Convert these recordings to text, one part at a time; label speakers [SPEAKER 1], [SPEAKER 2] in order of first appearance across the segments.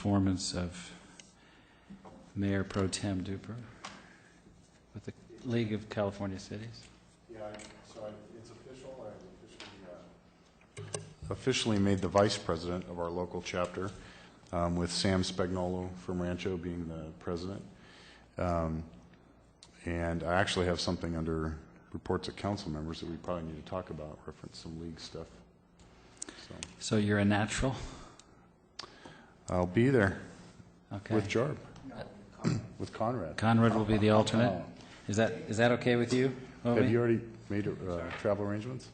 [SPEAKER 1] performance of Mayor Pro Tem Duper with the League of California Cities.
[SPEAKER 2] Yeah, I- so I- it's official, I officially, uh, officially made the vice president of our local chapter, um, with Sam Spagnolo from Rancho being the president. Um, And I actually have something under reports of council members that we probably need to talk about, reference some league stuff. So
[SPEAKER 1] So you're a natural?
[SPEAKER 2] I'll be there
[SPEAKER 1] Okay.
[SPEAKER 2] with Jarb, with Conrad.
[SPEAKER 1] Conrad will be the alternate. Is that, is that okay with you,
[SPEAKER 2] Oh. Have
[SPEAKER 1] Ovi?
[SPEAKER 2] you already made uh, travel arrangements?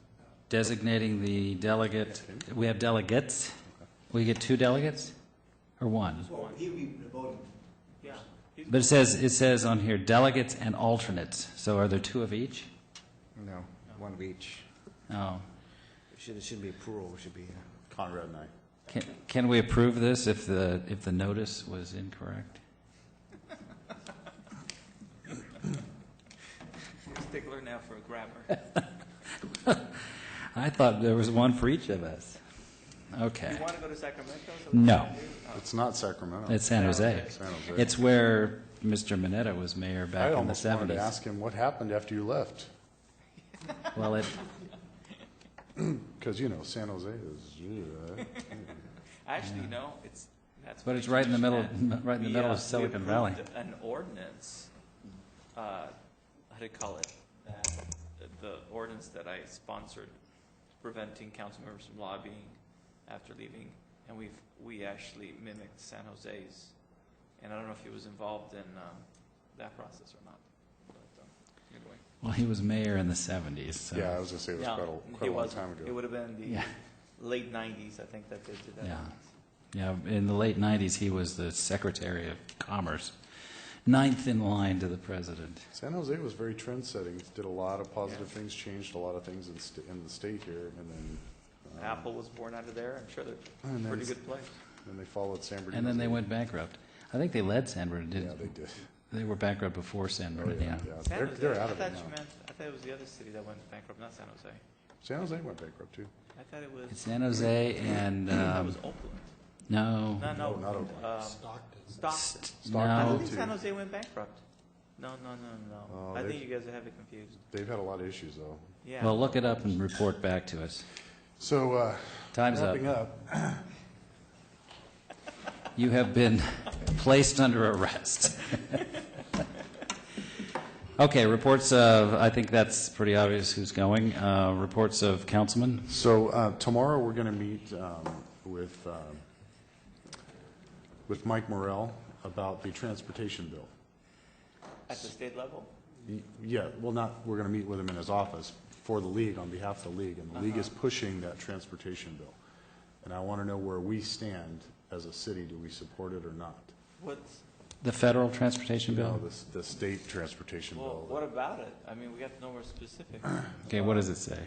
[SPEAKER 1] Designating the delegate, we have delegates? We get two delegates? Or one?
[SPEAKER 3] Well, he'll be the voting. Yeah.
[SPEAKER 1] But it says, it says on here delegates and alternates, so are there two of each?
[SPEAKER 4] No, one of each.
[SPEAKER 1] Oh.
[SPEAKER 4] It should- it shouldn't be a plural, it should be, uh,
[SPEAKER 2] Conrad and I.
[SPEAKER 1] Can, can we approve this if the, if the notice was incorrect?
[SPEAKER 5] Stickler now for grammar.
[SPEAKER 1] I thought there was one for each of us. Okay.
[SPEAKER 5] You want to go to Sacramento? so we
[SPEAKER 1] No,
[SPEAKER 5] can do- oh,
[SPEAKER 2] It's not Sacramento.
[SPEAKER 1] it's San Jose.
[SPEAKER 2] San Jose.
[SPEAKER 1] It's where Mr. Mineta was mayor back in the
[SPEAKER 2] I almost wanted to
[SPEAKER 1] 70s.
[SPEAKER 2] ask him what happened after you left,
[SPEAKER 1] Well, it,
[SPEAKER 2] because, you know, San Jose is,
[SPEAKER 5] Actually, no, it's, that's.
[SPEAKER 1] but
[SPEAKER 5] what
[SPEAKER 1] it's
[SPEAKER 5] we
[SPEAKER 1] right in the middle,
[SPEAKER 5] changed
[SPEAKER 1] right in the
[SPEAKER 5] that.
[SPEAKER 1] middle
[SPEAKER 5] We, uh,
[SPEAKER 1] of Silicon
[SPEAKER 5] we
[SPEAKER 1] Valley.
[SPEAKER 5] approved An ordinance, uh, how do you call it? That- The ordinance that I sponsored preventing council members from lobbying after leaving. And we've, we actually mimicked San Jose's. And I don't know if he was involved in, um, that process or not. But, um, anyway.
[SPEAKER 1] Well, he was mayor in the 70s, so.
[SPEAKER 2] yeah, I was going to say it was
[SPEAKER 5] No,
[SPEAKER 2] quite a, quite a
[SPEAKER 5] it
[SPEAKER 2] long
[SPEAKER 5] wasn't.
[SPEAKER 2] time
[SPEAKER 5] It
[SPEAKER 2] ago.
[SPEAKER 5] would have been the
[SPEAKER 1] Yeah.
[SPEAKER 5] late 90s, I think, that they did that.
[SPEAKER 1] Yeah. Yeah, in the late 90s, he was the Secretary of Commerce, ninth in line to the president.
[SPEAKER 2] San Jose was very trend-setting, did a lot of positive things, changed a lot of things in, st- in the state here, and then. um,
[SPEAKER 5] Apple was born out of there. I'm sure they're
[SPEAKER 2] And
[SPEAKER 5] a
[SPEAKER 2] then,
[SPEAKER 5] pretty good place.
[SPEAKER 2] then they followed San Bernardino.
[SPEAKER 1] And then they went bankrupt. I think they led San
[SPEAKER 2] Yeah,
[SPEAKER 1] Bernardino.
[SPEAKER 2] they did.
[SPEAKER 1] They were bankrupt before San
[SPEAKER 2] Oh, yeah,
[SPEAKER 1] Bernardino.
[SPEAKER 2] yeah.
[SPEAKER 5] San
[SPEAKER 2] They're,
[SPEAKER 5] Jose,
[SPEAKER 2] they're out
[SPEAKER 5] I
[SPEAKER 2] of it
[SPEAKER 5] thought you
[SPEAKER 2] now.
[SPEAKER 5] meant, I thought it was the other city that went bankrupt, not San Jose.
[SPEAKER 2] San Jose went bankrupt too.
[SPEAKER 5] I thought it was,
[SPEAKER 1] It's San Jose and,
[SPEAKER 5] I thought it
[SPEAKER 1] um,
[SPEAKER 5] was Oakland.
[SPEAKER 1] no,
[SPEAKER 5] No, no.
[SPEAKER 2] No, not Oakland.
[SPEAKER 5] um, Stockton.
[SPEAKER 1] st-
[SPEAKER 5] I
[SPEAKER 2] Stockton.
[SPEAKER 1] no,
[SPEAKER 5] think
[SPEAKER 2] too.
[SPEAKER 5] San Jose went bankrupt. No, no, no,
[SPEAKER 2] Oh,
[SPEAKER 5] no. I
[SPEAKER 2] they-
[SPEAKER 5] think you guys are having confused.
[SPEAKER 2] They've had a lot of issues though.
[SPEAKER 5] Yeah.
[SPEAKER 1] Well, look it up and report back to us.
[SPEAKER 2] So, uh,
[SPEAKER 1] Time's up.
[SPEAKER 2] wrapping up,
[SPEAKER 1] You have been placed under arrest. Okay, reports of, I think that's pretty obvious who's going. Uh, Reports of councilmen.
[SPEAKER 2] So uh, tomorrow, we're going to meet um, with, um, with Mike Morrell about the transportation bill.
[SPEAKER 5] At the state level?
[SPEAKER 2] Y- Yeah, well, not, we're going to meet with him in his office for the league, on behalf of the league, and the league
[SPEAKER 5] Uh-huh.
[SPEAKER 2] is pushing that transportation bill. And I want to know where we stand as a city, do we support it or not?
[SPEAKER 5] What's,
[SPEAKER 1] The federal transportation
[SPEAKER 2] You know,
[SPEAKER 1] bill?
[SPEAKER 2] the, s- the state transportation
[SPEAKER 5] well, what
[SPEAKER 2] bill.
[SPEAKER 5] about it? I mean, we got to know more specifics.
[SPEAKER 1] Okay, what does it say?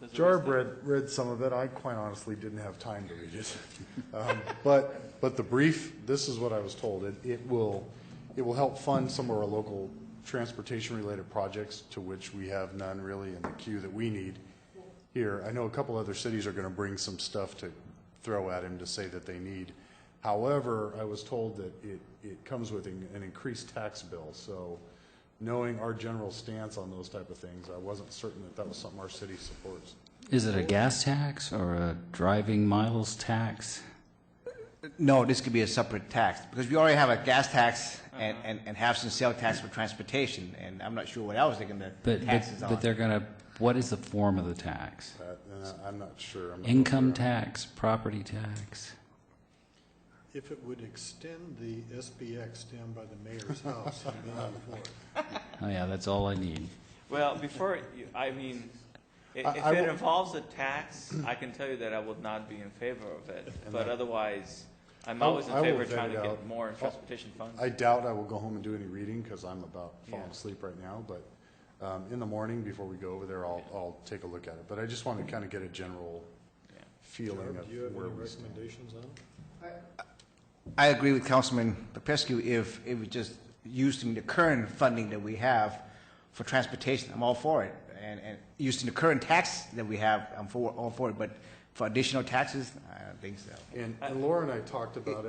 [SPEAKER 5] Does it
[SPEAKER 2] Jarb
[SPEAKER 5] list it?
[SPEAKER 2] read, read some of it, I quite honestly didn't have time to read it. Um, But, but the brief, this is what I was told, it, it will, it will help fund some of our local transportation-related projects, to which we have none really in the queue that we need here. I know a couple other cities are going to bring some stuff to throw at him to say that they need. However, I was told that it, it comes with an an increased tax bill, so knowing our general stance on those type of things, I wasn't certain that that was something our city supports.
[SPEAKER 1] Is it a gas tax or a driving miles tax?
[SPEAKER 4] No, this could be a separate tax, because we already have a gas tax and, and, and have some sale tax for transportation, and I'm not sure what else they're gonna
[SPEAKER 1] But, but,
[SPEAKER 4] tax us on.
[SPEAKER 1] but they're going to, what is the form of the tax?
[SPEAKER 2] Uh, and I- I'm not sure. I'm not
[SPEAKER 1] Income
[SPEAKER 2] clear.
[SPEAKER 1] tax, property tax?
[SPEAKER 6] If it would extend the SBX down by the mayor's house and be on the floor.
[SPEAKER 1] Oh, yeah, that's all I need.
[SPEAKER 5] Well, before, you- I mean, i-
[SPEAKER 2] I-
[SPEAKER 5] if
[SPEAKER 2] I
[SPEAKER 5] it
[SPEAKER 2] will-
[SPEAKER 5] involves a tax, I can tell you that I would not be in favor of it. But
[SPEAKER 2] that-
[SPEAKER 5] otherwise, I'm
[SPEAKER 2] I-
[SPEAKER 5] always in
[SPEAKER 2] I will
[SPEAKER 5] favor of
[SPEAKER 2] vet
[SPEAKER 5] trying
[SPEAKER 2] it
[SPEAKER 5] to get
[SPEAKER 2] out.
[SPEAKER 5] more
[SPEAKER 2] Oh,
[SPEAKER 5] transportation funds.
[SPEAKER 2] I doubt I will go home and do any reading because I'm about falling
[SPEAKER 5] Yeah.
[SPEAKER 2] asleep right now, but um, in the morning, before we go over there, I'll, I'll take a look at it. But I just want to kind of get a general
[SPEAKER 5] Yeah.
[SPEAKER 2] feeling
[SPEAKER 6] Jarb,
[SPEAKER 2] of
[SPEAKER 6] do you have
[SPEAKER 2] where
[SPEAKER 6] any
[SPEAKER 2] we stand.
[SPEAKER 6] recommendations on it?
[SPEAKER 4] I agree with Councilman Papescu, if, if we just using the current funding that we have for transportation, I'm all for it. And, and using the current tax that we have, I'm for, all for it, but
[SPEAKER 7] for additional taxes? I don't think so.
[SPEAKER 4] And and Laura and I talked about it.